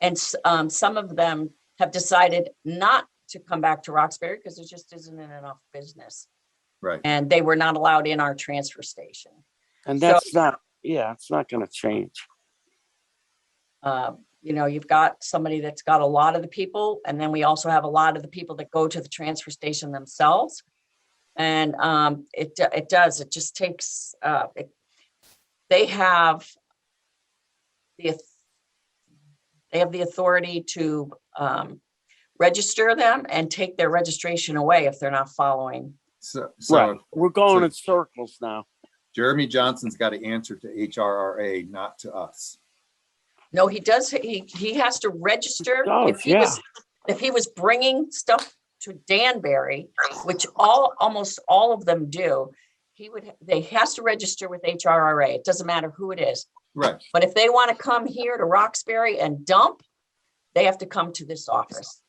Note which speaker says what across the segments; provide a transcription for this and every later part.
Speaker 1: And s- um, some of them have decided not to come back to Roxbury because there just isn't enough business.
Speaker 2: Right.
Speaker 1: And they were not allowed in our transfer station.
Speaker 3: And
Speaker 1: So-
Speaker 3: that's not, yeah, it's not gonna change.
Speaker 1: Uh, You know, you've got somebody that's got a lot of the people, and then we also have a lot of the people that go to the transfer station themselves. And um, it, do- it does, it just takes, uh, it- they have the, auth- they have the authority to um, register them and take their registration away if they're not following.
Speaker 2: So, so
Speaker 3: Right, we're going
Speaker 2: so-
Speaker 3: in circles now.
Speaker 2: Jeremy Johnson's got to answer to HRRA, not to us.
Speaker 1: No, he does, he, he has to register.
Speaker 3: does,
Speaker 1: If he was, if he was bringing stuff to Danbury, which all, almost all of them do, he would, they has to register with HRRA. It doesn't matter who it is.
Speaker 2: Right.
Speaker 1: But if they want to come here to Roxbury and dump, they have to come to this office.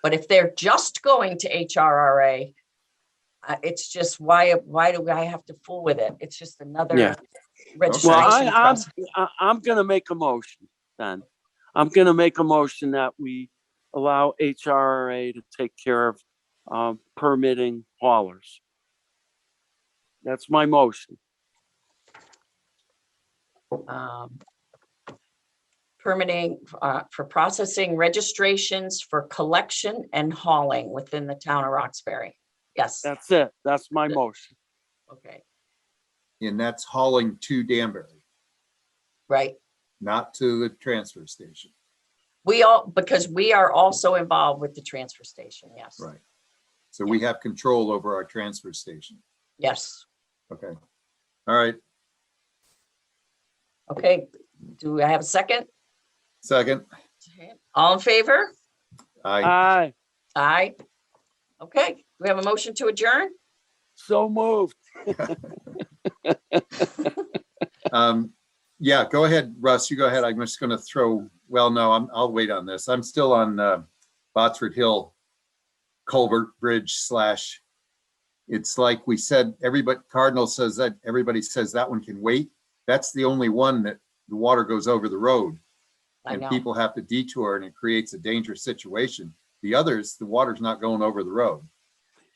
Speaker 1: But if they're just going to HRRA, uh, it's just why, why do I have to fool with it? It's just
Speaker 3: Yeah.
Speaker 1: another
Speaker 3: Well, I,
Speaker 1: registration
Speaker 3: I'm,
Speaker 1: process.
Speaker 3: I- I'm gonna make a motion then. I'm gonna make a motion that we allow HRA to take care of, um, permitting haulers. That's my motion.
Speaker 1: um, permitting uh, for processing registrations for collection and hauling within the town of Roxbury. Yes,
Speaker 3: That's it. That's my motion.
Speaker 1: okay,
Speaker 2: And that's hauling to Danbury,
Speaker 1: right.
Speaker 2: not to the transfer station.
Speaker 1: We all, because we are also involved with the transfer station, yes.
Speaker 2: Right. So we have control over our transfer station.
Speaker 1: Yes,
Speaker 2: Okay. All right.
Speaker 1: okay. Do I have a second?
Speaker 2: Second.
Speaker 1: All in favor?
Speaker 2: I,
Speaker 3: Aye,
Speaker 1: Aye. Okay, Do we have a motion to adjourn?
Speaker 3: so moved.
Speaker 2: um, yeah, go ahead, Russ. You go ahead. I'm just going to throw, well, no, I'm, I'll wait on this. I'm still on, uh, Botsford Hill culvert bridge slash. It's like we said, everybody, Cardinal says that, everybody says that one can wait. That's the only one that the water goes over the road.
Speaker 1: I
Speaker 2: and
Speaker 1: know,
Speaker 2: people have to detour and it creates a dangerous situation. The others, the water's not going over the road.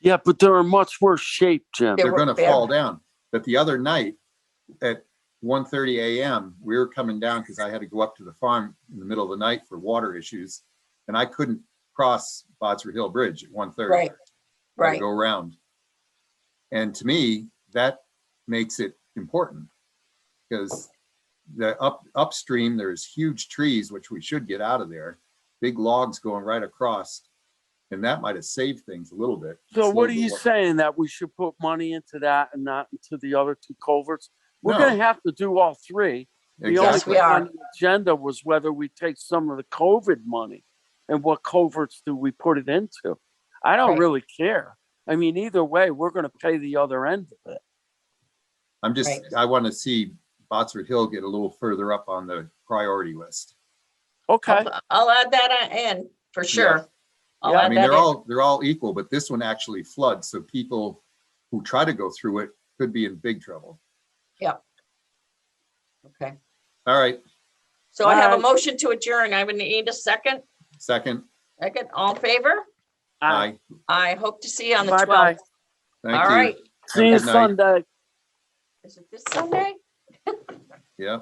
Speaker 3: Yeah, but they're in much worse shape, Jim.
Speaker 1: They
Speaker 2: They're
Speaker 1: were
Speaker 2: gonna
Speaker 1: bad.
Speaker 2: fall down. But the other night at 1:30 AM, we were coming down because I had to go up to the farm in the middle of the night for water issues. And I couldn't cross Botsford Hill Bridge at 1:30.
Speaker 1: Right,
Speaker 2: I had to
Speaker 1: right.
Speaker 2: Go around. And to me, that makes it important. Because the up upstream, there's huge trees, which we should get out of there, big logs going right across. And that might have saved things a little bit.
Speaker 3: So what are
Speaker 2: Slowed the
Speaker 3: you
Speaker 2: wa-
Speaker 3: saying? That we should put money into that and not into the other two culverts? We're
Speaker 2: No,
Speaker 3: gonna have to do all three. The only
Speaker 1: Yes,
Speaker 2: Exactly.
Speaker 1: we
Speaker 3: thing
Speaker 1: are.
Speaker 3: on the agenda was whether we take some of the COVID money and what culverts do we put it into? I don't
Speaker 1: Right.
Speaker 3: really care. I mean, either way, we're gonna pay the other end of it.
Speaker 2: I'm just,
Speaker 1: Right.
Speaker 2: I want to see Botsford Hill get a little further up on the priority list.
Speaker 3: Okay,
Speaker 1: I'll I'll add that uh, in for sure. I'll
Speaker 3: Yeah, I
Speaker 2: I
Speaker 1: add
Speaker 2: mean,
Speaker 1: that
Speaker 2: they're
Speaker 1: in.
Speaker 2: all, they're all equal, but this one actually floods, so people who try to go through it could be in big trouble.
Speaker 1: Okay,
Speaker 2: All right,
Speaker 1: so I have a
Speaker 3: Alright.
Speaker 1: motion to adjourn. I would need a second.
Speaker 2: second,
Speaker 1: Second, all in favor?
Speaker 2: aye,
Speaker 1: I hope to see you on the
Speaker 3: Bye-bye.
Speaker 1: twelfth.
Speaker 2: thank you.
Speaker 1: Ah. All right,
Speaker 3: see you
Speaker 2: Have a good night.
Speaker 3: Sunday.
Speaker 1: is it this Sunday?
Speaker 2: Yeah,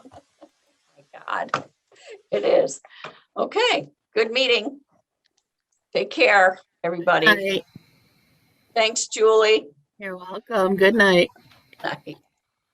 Speaker 1: My God, it is. Okay, good meeting. Take care, everybody.
Speaker 4: Hi,
Speaker 1: Thanks, Julie.
Speaker 4: you're welcome. Good night.
Speaker 1: Bye.